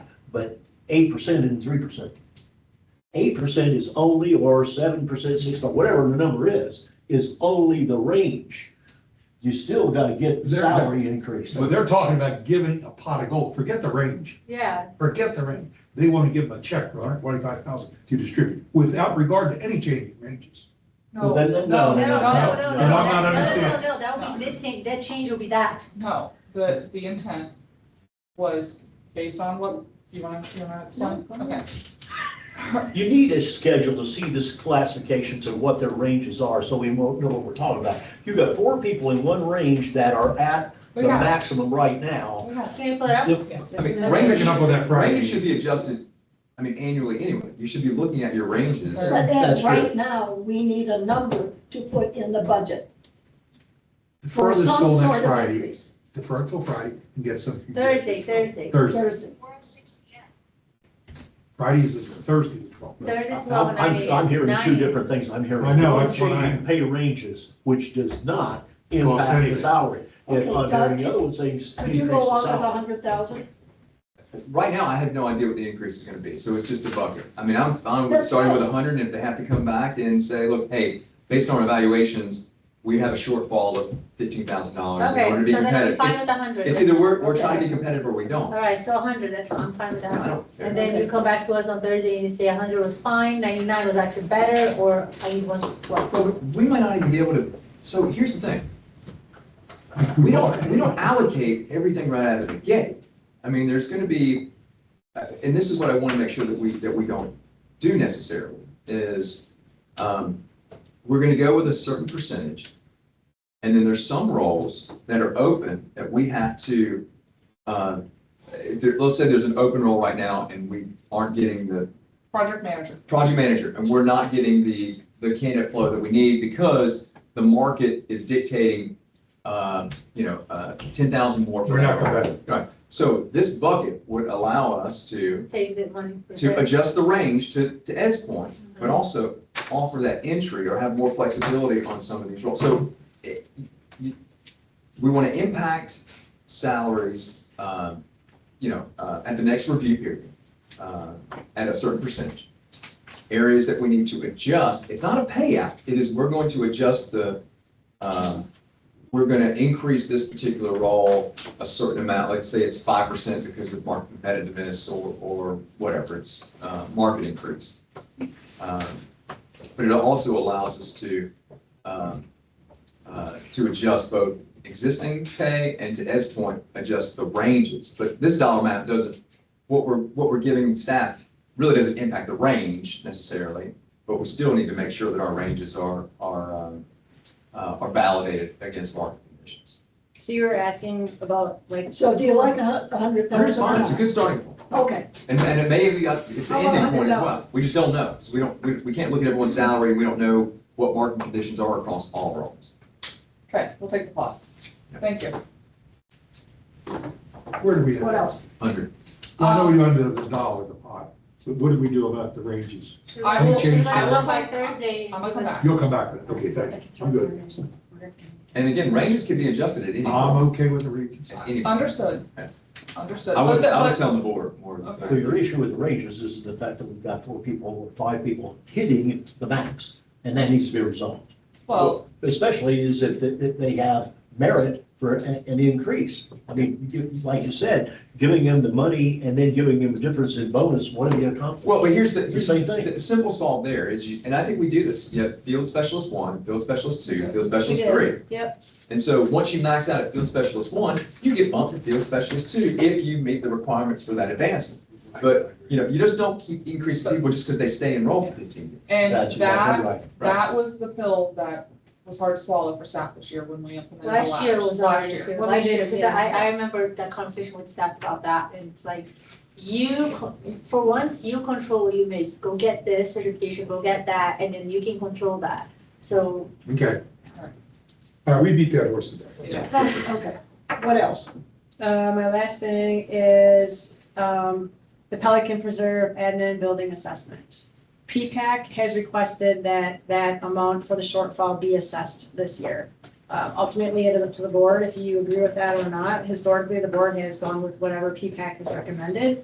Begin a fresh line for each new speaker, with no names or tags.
but eight percent and three percent. Eight percent is only, or seven percent, six, percent, whatever the number is, is only the range. You still gotta get the
They're-
salary increase.
So they're talking about giving a pot of gold, forget the range,
Yeah,
forget the range. They want to give them a check for hundred twenty-five thousand to distribute without regard to any change in ranges.
no,
Well, then-
no,
then
no, no,
no, no,
no,
no,
no.
no, no, I'm not
that-
understanding.
No, no, no, that would be mid-change, that change will be that.
No, the, the intent was based on what, do you want, you want to explain? Okay.
You need a schedule to see this classifications of what their ranges are, so we mo- know what we're talking about. You've got four people in one range that are at the
We got it.
maximum right now.
We got it.
Can you pull it up?
The-
I mean,
Okay.
range,
Picking up on that Friday.
range should be adjusted, I mean, annually anyway. You should be looking at your ranges.
But
That's
then,
right.
right now, we need a number to put in the budget
Defer
for
this
some
till
sort
next
of
Friday,
increase.
defer till Friday and get some.
Thursday, Thursday.
Thursday,
Thursday.
Friday is the Thursday. the 12th.
Thursday, twelve
I'm,
and nine.
I'm- I'm hearing two different things. I'm hearing.
I know,
one
that's what I-
changing Pay ranges, which does not
Well,
impact
anyway.
the salary. And
Okay,
on
Doug,
the other things,
Could
increase
you go
the
along with a
salary.
hundred thousand?
Right now, I have no idea what the increase is gonna be, so it's just a bucket. I mean, I'm fine with starting with hundred, and if they have to come back and say, look, hey, based on evaluations, we have a shortfall of fifteen thousand dollars in
Okay, so
order to be
then I'm
competitive.
fine
It's-
with a hundred.
It's either we're, we're
Okay.
trying to be competitive or we
All
don't.
right, so a hundred, that's, I'm fine with
I
that.
don't care.
And then you come back to us on Thursday and you say a hundred was fine, ninety-nine was actually better, or I need one, what?
Well, we might not even be able to, so here's the thing. We don't, we don't allocate everything right out of the gate. I mean, there's gonna be, uh, and this is what I wanna make sure that we, that we don't do necessarily, is, um, we're gonna go with a certain percentage. And then there's some roles that are open that we have to, uh, there- let's say there's an open role right now and we aren't getting the
Project manager.
project manager, and we're not getting the, the candidate flow that we need because the market is dictating, uh, you know, uh, ten thousand more. per
We're not
hour.
competitive.
Right, so this bucket would allow us to,
Take the money. for
to
that.
adjust the range to, to Ed's point, but also offer that entry or have more flexibility on some of these roles. So it- you- we want to impact salaries, um, you know, uh, at the next review period, uh, at a certain percentage. Areas that we need to adjust, it's not a payout, it is, we're going to adjust the, um, we're going to increase this particular role a certain amount, let's say it's five percent because of market competitiveness or, or whatever, it's, uh, market increase. Um, But it also allows us to, um, uh, to adjust both existing pay and to Ed's point, adjust the ranges. But this dollar amount doesn't, what we're, what we're giving staff really doesn't impact the range necessarily, but we still need to make sure that our ranges are, are, um, uh, are validated against market conditions.
So you were asking about like,
So do you like a hu- a hundred
That's
thousand?
fine, it's a good starting point,
Okay,
and, and it may be, up- it's an
How about
ending point as
100,000?
Oh, well, we just don't know, so we don't, we, we can't look at everyone's salary, we don't know what market conditions are across all roles.
Okay, we'll take the plot. Thank you.
Where do we? end
what
up?
else?
Hundred.
I know we under the dollar, the pot, but what do we do about the ranges?
I
will-
So
change
let's
that.
look by Thursday.
I'm gonna come back.
You'll come back with it, okay, thank you, I'm good.
And again, ranges can be adjusted at any,
I'm
point,
okay with the ranges.
at any. point.
Understood. Understood.
I was,
Listen,
I was
listen,
telling the board more than.
So your issue with the ranges is the fact that we've got four people, or five people hitting the max, and that needs to be resolved.
Well,
Especially is if, th- if they have merit for an, an increase. I mean, you- like you said, giving them the money and then giving them a difference in bonus, what do they accomplish?
Well, but here's the,
The
here's
same thing.
the simple solve there is you, and I think we do this, you have field specialist one, field specialist two, field
We
specialist
did.
three.
Yep,
And so once you max out at field specialist one, you get bumped to field specialist two if you meet the requirements for that advancement. But, you know, you just don't keep increasing people just because they stay enrolled for fifteen years.
and
That's exactly
that,
right.
that was the pill that was hard to swallow for staff this year when we implemented the
last year was
last
ours,
year.
yeah,
When we
last
did
year,
it,
because
yeah.
I, I remember that conversation with staff about that, and it's like, you, co- for once, you control what you make, go get this certification, go get that, and then you can control that. So
Okay. All right, we beat that horse to death.
Okay, what else?
uh, my last thing is, um, the Pelican Preserve admin building assessment. PPAC has requested that, that amount for the shortfall be assessed this year. Uh, ultimately, it is up to the board if you agree with that or not. Historically, the board has gone with whatever PPAC has recommended.